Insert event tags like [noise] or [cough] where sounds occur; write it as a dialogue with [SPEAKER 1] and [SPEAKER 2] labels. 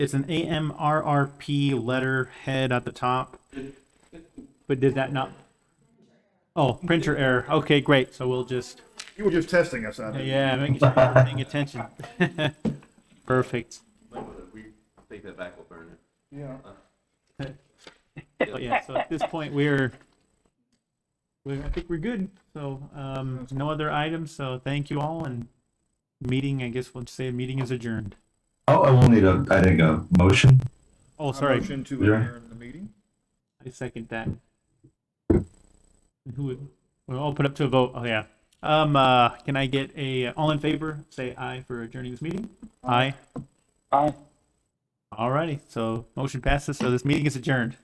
[SPEAKER 1] it's an AMRRP letterhead at the top. But did that not? Oh, printer error. Okay, great. So we'll just,
[SPEAKER 2] You were just testing us on it.
[SPEAKER 1] yeah, making sure you're paying attention. [laughs] Perfect.
[SPEAKER 3] Might wanna re- take that back, we'll burn it.
[SPEAKER 2] Yeah.
[SPEAKER 1] But yeah, so at this point, we're, we, I think we're good. So, um, no other items. So thank you all and meeting, I guess we'll just say meeting is adjourned.
[SPEAKER 4] Oh, I will need a, I think, a motion.
[SPEAKER 1] Oh,
[SPEAKER 2] A
[SPEAKER 1] sorry.
[SPEAKER 2] Motion to
[SPEAKER 4] Yeah.
[SPEAKER 2] adjourn the meeting?
[SPEAKER 1] I second that. Who would, we'll all put up to a vote. Oh, yeah. Um, uh, can I get a, all in favor, say aye for adjourning this meeting? Aye. Aye. Alrighty, so motion passes, so this meeting is adjourned.